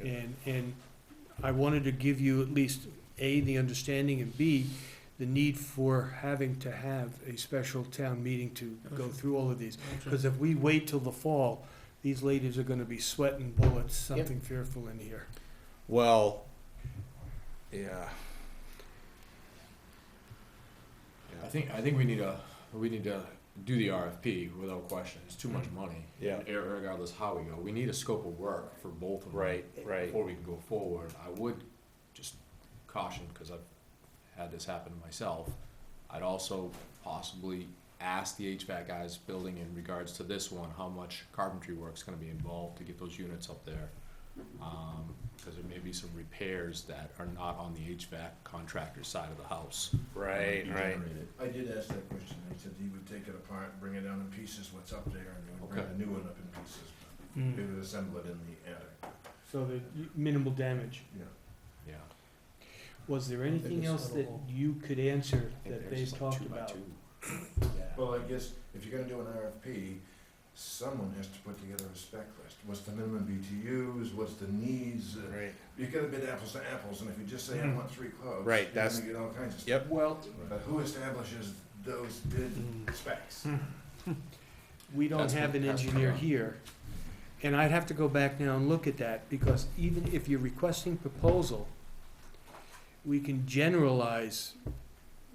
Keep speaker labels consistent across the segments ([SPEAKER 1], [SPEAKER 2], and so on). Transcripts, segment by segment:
[SPEAKER 1] And, and I wanted to give you at least, A, the understanding, and B, the need for having to have a special town meeting to go
[SPEAKER 2] Okay.
[SPEAKER 1] through all of these. Because if we wait till the fall, these ladies are gonna be sweating bullets, something fearful in here.
[SPEAKER 3] Well, yeah.
[SPEAKER 4] I think, I think we need to, we need to do the RFP without question. It's too
[SPEAKER 3] Mm-hmm.
[SPEAKER 4] much money.
[SPEAKER 3] Yeah.
[SPEAKER 4] ir- Regardless how we go, we need a scope of work for both of them.
[SPEAKER 3] Right, right.
[SPEAKER 4] Before we can go forward, I would just caution, because I've had this happen to myself. I'd also possibly ask the HVAC guys building in regards to this one, how much carpentry work's gonna be involved to get those units up there.
[SPEAKER 3] Mm-hmm.
[SPEAKER 4] Um, cause there may be some repairs that are not on the HVAC contractor's side of the house.
[SPEAKER 3] Right, right.
[SPEAKER 5] I did ask that question, I said he would take it apart, bring it down in pieces, what's up there, and he would bring
[SPEAKER 4] Okay.
[SPEAKER 5] a new one up in pieces.
[SPEAKER 3] Hmm.
[SPEAKER 2] Mm.
[SPEAKER 5] He would assemble it in the attic,
[SPEAKER 1] So the minimal damage.
[SPEAKER 5] you know.
[SPEAKER 3] Hmm.
[SPEAKER 4] Yeah.
[SPEAKER 1] Was there anything
[SPEAKER 2] it's
[SPEAKER 1] else that
[SPEAKER 2] sort of-
[SPEAKER 1] you could answer
[SPEAKER 4] I think
[SPEAKER 1] that
[SPEAKER 4] they're
[SPEAKER 1] they
[SPEAKER 4] just like
[SPEAKER 1] talked
[SPEAKER 4] two by
[SPEAKER 1] about?
[SPEAKER 4] two.
[SPEAKER 5] Well, I guess if you're gonna do an RFP, someone has to put together a spec list, what's the minimum BTUs, what's the needs, uh,
[SPEAKER 3] Right.
[SPEAKER 5] you gotta bid apples to apples, and if you just say, I want three quotes.
[SPEAKER 3] Hmm. Right,
[SPEAKER 5] you're gonna
[SPEAKER 3] that's-
[SPEAKER 5] get all kinds of stuff.
[SPEAKER 3] Yep.
[SPEAKER 1] Well,
[SPEAKER 5] But who establishes those bid
[SPEAKER 3] Hmm.
[SPEAKER 5] specs?
[SPEAKER 1] we don't
[SPEAKER 4] That's
[SPEAKER 1] have
[SPEAKER 4] what-
[SPEAKER 1] an
[SPEAKER 4] that's what
[SPEAKER 1] engineer
[SPEAKER 4] I'm-
[SPEAKER 1] here. And I'd have to go back now and look at that, because even if you're requesting proposal, we can generalize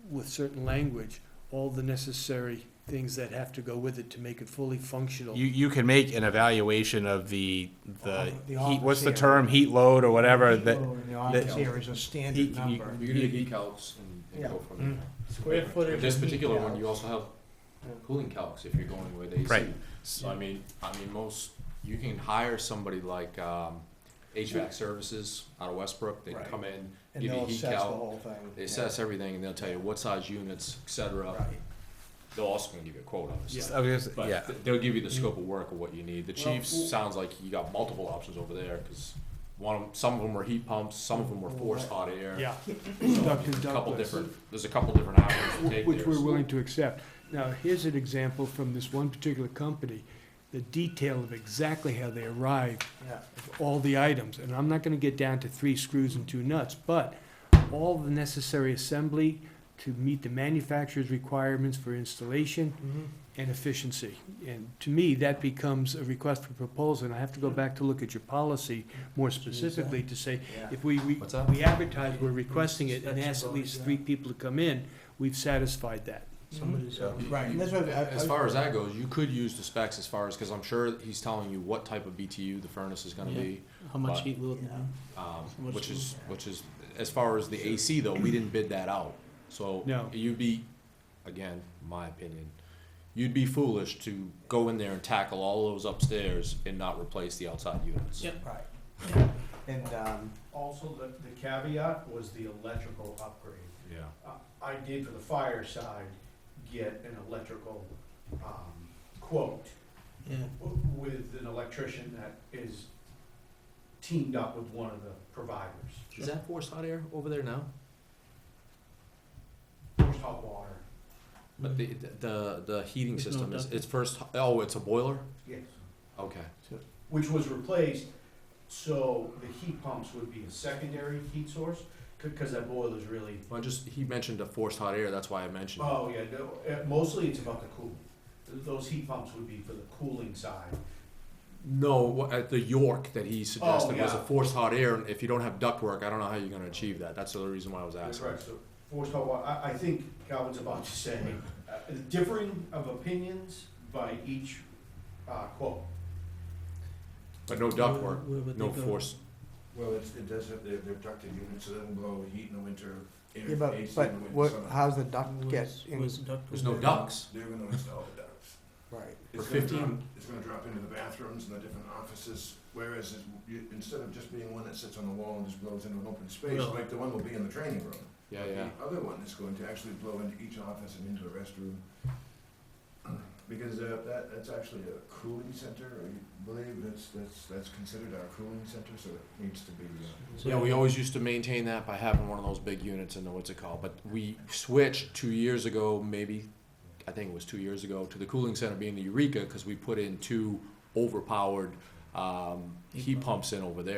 [SPEAKER 1] with certain language all the necessary things that have to go with it to make it fully functional.
[SPEAKER 3] You you can make an evaluation of the the,
[SPEAKER 2] The
[SPEAKER 3] heat, what's the
[SPEAKER 2] office
[SPEAKER 3] term heat load or whatever
[SPEAKER 2] Heat
[SPEAKER 3] that
[SPEAKER 2] load in The office
[SPEAKER 4] that-
[SPEAKER 2] here is a
[SPEAKER 3] Heat-
[SPEAKER 2] standard
[SPEAKER 3] you-
[SPEAKER 2] number.
[SPEAKER 4] You can do the heat calcs and- and go from there.
[SPEAKER 2] Square footage.
[SPEAKER 4] With This
[SPEAKER 2] of heat
[SPEAKER 4] particular one,
[SPEAKER 2] counts.
[SPEAKER 4] you also have cooling calcs if you're going with AC.
[SPEAKER 3] Right.
[SPEAKER 4] So I mean, I mean, most, you can hire somebody like, um, HVAC Services out of Westbrook, they can
[SPEAKER 2] Right.
[SPEAKER 4] come in,
[SPEAKER 2] And
[SPEAKER 4] give you
[SPEAKER 2] they'll
[SPEAKER 4] a heat
[SPEAKER 2] assess the
[SPEAKER 4] calc.
[SPEAKER 2] whole thing.
[SPEAKER 4] They
[SPEAKER 2] yeah.
[SPEAKER 4] assess everything and they'll tell you what size units, et cetera.
[SPEAKER 2] Right.
[SPEAKER 4] They'll also gonna give you a quote, obviously.
[SPEAKER 3] I was gonna say, yeah.
[SPEAKER 4] But th- they'll give you the scope of work of what you need. The
[SPEAKER 1] Well, w-
[SPEAKER 4] Chiefs, sounds like you got multiple options over there, cause one, of 'em- some of them were heat pumps, some of them were forced hot air.
[SPEAKER 1] Yeah,
[SPEAKER 4] There's
[SPEAKER 1] Dr.
[SPEAKER 4] a couple
[SPEAKER 1] Douglas.
[SPEAKER 4] different, there's a couple different avenues to take
[SPEAKER 1] which
[SPEAKER 4] there,
[SPEAKER 1] we're
[SPEAKER 4] so-
[SPEAKER 1] willing to accept. Now, here's an example from this one particular company, the detail of exactly how they arrived
[SPEAKER 2] Yeah.
[SPEAKER 1] of all the items, and I'm not gonna get down to three screws and two nuts, but all the necessary assembly to meet the manufacturer's requirements for installation
[SPEAKER 3] Mm-hmm.
[SPEAKER 2] Mhm.
[SPEAKER 1] and efficiency. And to me, that becomes a request for proposal, and I have to go back to look at your policy more specifically to say,
[SPEAKER 2] Yeah.
[SPEAKER 1] if we, re-
[SPEAKER 4] What's that?
[SPEAKER 1] we advertise, we're requesting it, and ask at least three people to come in, we've satisfied that.
[SPEAKER 2] Somebody's-
[SPEAKER 3] Yeah.
[SPEAKER 2] Right, and that's what I- I-
[SPEAKER 4] As far as that goes, you could use the specs as far as, because I'm sure he's telling you what type of BTU the furnace is gonna be,
[SPEAKER 6] How
[SPEAKER 4] But-
[SPEAKER 6] much heat will it
[SPEAKER 2] Yeah.
[SPEAKER 6] be?
[SPEAKER 4] um,
[SPEAKER 6] Much
[SPEAKER 4] which is, which is, as far as the AC though, we didn't bid that out. So
[SPEAKER 1] No.
[SPEAKER 4] you'd be, again, my opinion, you'd be foolish to go in there and tackle all those upstairs and not replace the outside units.
[SPEAKER 6] Yep.
[SPEAKER 2] Right. And, um,
[SPEAKER 7] Also, the, the caveat was the electrical upgrade.
[SPEAKER 4] Yeah.
[SPEAKER 7] I- I did for the fire side, get an electrical, um, quote
[SPEAKER 6] Yeah.
[SPEAKER 7] w- with an electrician that is teamed up with one of the providers.
[SPEAKER 4] Is that forced hot air over there now?
[SPEAKER 7] First hot water,
[SPEAKER 4] But the, the, the heating
[SPEAKER 6] It's not
[SPEAKER 4] system is,
[SPEAKER 6] ducted.
[SPEAKER 4] it's first, oh, it's a boiler?
[SPEAKER 7] yes,
[SPEAKER 4] Okay.
[SPEAKER 7] which was replaced, so the heat pumps would be a secondary heat source, c- cause that boiler's really,
[SPEAKER 4] Well, just, he mentioned a forced hot air, that's why I mentioned it.
[SPEAKER 7] oh, yeah, no, uh, mostly it's about the cooling. Th- Those heat pumps would be for the cooling side.
[SPEAKER 4] No, what- at the York that he suggested was a
[SPEAKER 7] Oh, yeah.
[SPEAKER 4] forced hot air, and if you don't have ductwork, I don't know how you're going to achieve that. That's the other reason why I was
[SPEAKER 7] That's
[SPEAKER 4] asking.
[SPEAKER 7] right, so forced hot water, I, I think Calvin's about to say, uh, differing of opinions by each, uh, quote.
[SPEAKER 4] But no ductwork,
[SPEAKER 6] Where- where would
[SPEAKER 4] no
[SPEAKER 6] they go?
[SPEAKER 4] force.
[SPEAKER 5] Well, it's, it does have, they're, they're ducted units, so that'll blow heat in the winter, air,
[SPEAKER 2] yeah, but,
[SPEAKER 5] AC
[SPEAKER 2] but
[SPEAKER 5] in the winter,
[SPEAKER 2] what,
[SPEAKER 5] summer.
[SPEAKER 2] how's the duct get
[SPEAKER 6] Where's-
[SPEAKER 2] in?
[SPEAKER 6] where's duct
[SPEAKER 4] There's
[SPEAKER 6] will
[SPEAKER 4] no
[SPEAKER 6] be?
[SPEAKER 4] ducts.
[SPEAKER 5] They're gonna install the ducts.
[SPEAKER 2] Right.
[SPEAKER 4] For
[SPEAKER 5] It's gonna
[SPEAKER 4] 15
[SPEAKER 5] drop- It's gonna drop into the bathrooms and the different offices, whereas it- you- instead of just being one that sits on the wall and just blows into an open space,
[SPEAKER 6] Well-
[SPEAKER 5] like the one will be in the training room.
[SPEAKER 4] Yeah, yeah.
[SPEAKER 5] The other one is going to actually blow into each office and into the restroom. Because uh, that, that's actually a cooling center, I believe, that's, that's, that's considered our cooling center, so it needs to be, uh,
[SPEAKER 6] So-
[SPEAKER 4] Yeah, we always used to maintain that by having one of those big units in the what's it called. But we switched two years ago, maybe, I think it was two years ago, to the cooling center being the Eureka because we put in two overpowered um,
[SPEAKER 6] Heat
[SPEAKER 4] heat
[SPEAKER 6] pump.
[SPEAKER 4] pumps in over there.